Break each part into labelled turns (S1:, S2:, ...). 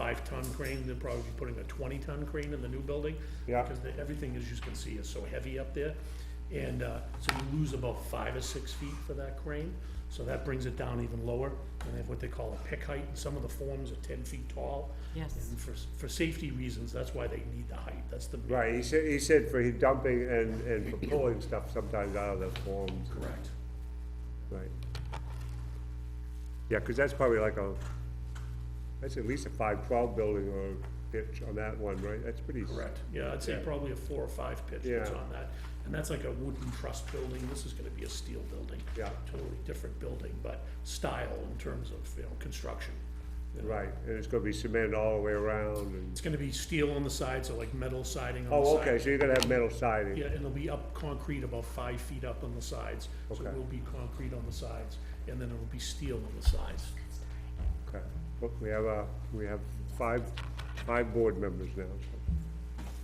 S1: five-ton crane, they'll probably be putting a twenty-ton crane in the new building.
S2: Yeah.
S1: Because the- everything, as you can see, is so heavy up there. And, uh, so you lose about five or six feet for that crane, so that brings it down even lower. And they have what they call a pick height, and some of the forms are ten feet tall.
S3: Yes.
S1: And for, s- for safety reasons, that's why they need the height, that's the.
S2: Right, he said, he said for his dumping and, and for pulling stuff sometimes out of the forms,
S1: Correct.
S2: right? Yeah, cause that's probably like a, that's at least a five twelve building or pitch on that one, right? That's pretty. s-
S1: Correct, yeah, I'd say
S2: Yeah.
S1: probably a four or five pitch that's
S2: Yeah.
S1: on that. And that's like a wooden truss building, this is gonna be a steel building.
S2: Yeah.
S1: Totally different building, but style in terms of, you know, construction. you know.
S2: Right, and it's gonna be cemented all the way around and,
S1: It's gonna be steel on the sides, so like metal siding on the
S2: oh,
S1: side.
S2: okay, so you're gonna have metal siding.
S1: Yeah, and it'll be up concrete about five feet up on the sides. So
S2: Okay.
S1: it will be concrete on the sides, and then it'll be steel on the sides.
S2: Okay, Look, we have, uh, we have five, five board members now.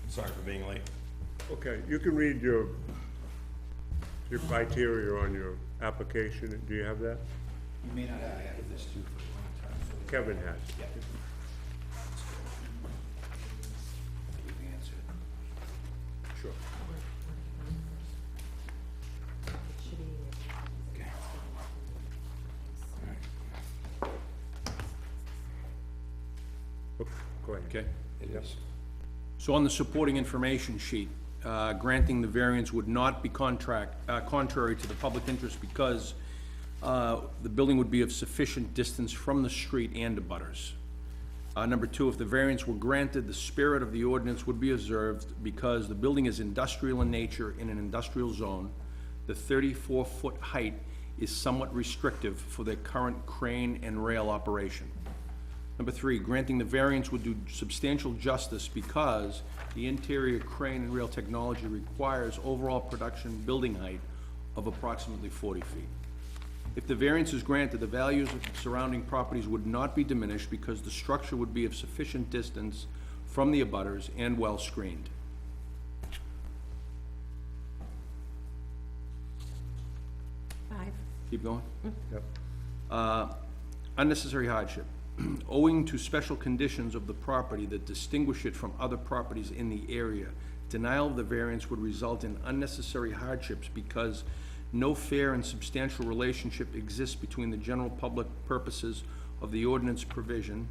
S4: Sorry for being late.
S2: Okay, you can read your, your criteria on your application, do you have that?
S5: You may not have had this too for a long time, so
S2: Kevin has.
S5: you can answer it.
S2: Sure. Go ahead.
S6: Okay.
S2: Yep.
S6: So on the supporting information sheet, uh, granting the variance would not be contract, uh, contrary to the public interest because uh, the building would be of sufficient distance from the street and the butters. Uh, Number two, if the variance were granted, the spirit of the ordinance would be observed because the building is industrial in nature in an industrial zone. The 34-foot height is somewhat restrictive for the current crane and rail operation. Number three, granting the variance would do substantial justice because the interior crane and rail technology requires overall production building height of approximately forty feet. If the variance is granted, the values of surrounding properties would not be diminished because the structure would be of sufficient distance from the abutters and well screened.
S3: Five.
S6: Keep going.
S2: Yep.
S6: Uh, Unnecessary hardship. Owing to special conditions of the property that distinguish it from other properties in the area, denial of the variance would result in unnecessary hardships because no fair and substantial relationship exists between the general public purposes of the ordinance provision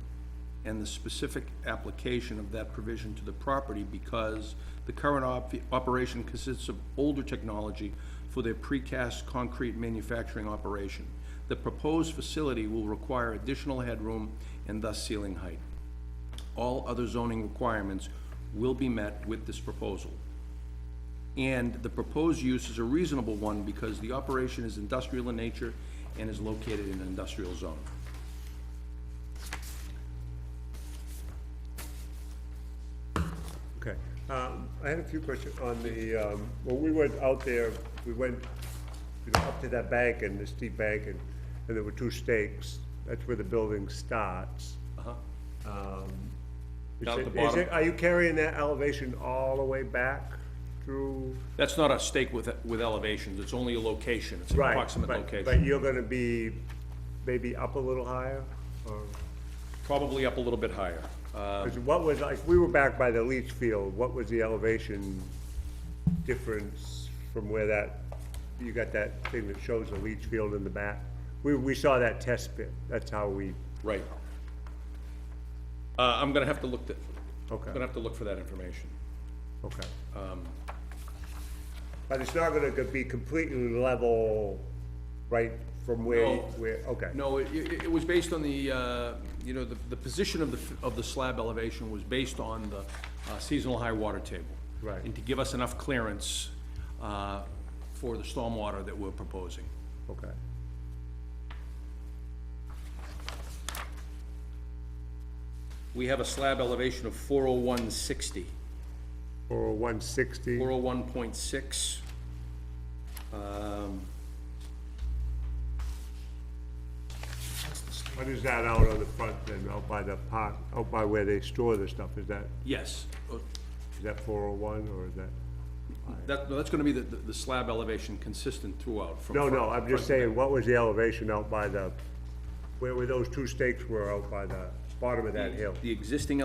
S6: and the specific application of that provision to the property because the current op- operation consists of older technology for their precast concrete manufacturing operation. The proposed facility will require additional headroom and thus ceiling height. All other zoning requirements will be met with this proposal. And the proposed use is a reasonable one because the operation is industrial in nature and is located in an industrial zone.
S2: Okay, um, I had a few questions on the, um, when we went out there, we went, you know, up to that bank and the steep bank and, and there were two stakes. That's where the building starts.
S6: Uh-huh.
S2: Um, is
S6: Down at
S2: it-
S6: the
S2: is
S6: bottom.
S2: it- Are you carrying that elevation all the way back through?
S6: That's not a stake with, with elevations, it's only a location, it's an
S2: Right,
S6: approximate
S2: but- But
S6: location.
S2: you're gonna be maybe up a little higher, or,
S6: Probably up a little bit higher. Uh,
S2: 'cause what was, like, we were back by the leach field, what was the elevation difference from where that, you got that thing that shows the leach field in the back? We, we saw that test pit, that's how we,
S6: Right. Uh, I'm gonna have to look, th-
S2: Okay.
S6: I'm gonna have to look for that information.
S2: okay.
S6: Um,
S2: But it's not gonna be completely level, right, from where, you-
S6: No.
S2: where, okay.
S6: No, it, it, it was based on the, uh, you know, the, the position of the, f- of the slab elevation was based on the uh, seasonal high water table.
S2: Right.
S6: And to give us enough clearance, uh, for the stormwater that we're proposing.
S2: Okay.
S6: We have a slab elevation of four oh one sixty.
S2: Or one sixty?
S6: 401.6. Um,
S2: What is that out on the front then, out by the park, out by where they store the stuff, is that,
S6: Yes, uh,
S2: is that four oh one, or is that?
S6: that, no, that's going to be the, the the slab elevation consistent throughout. from
S2: No,
S6: front-
S2: no, I'm just
S6: front to
S2: saying, what was the elevation out by the, where were those two stakes were out by the, bottom of that hill.
S6: The existing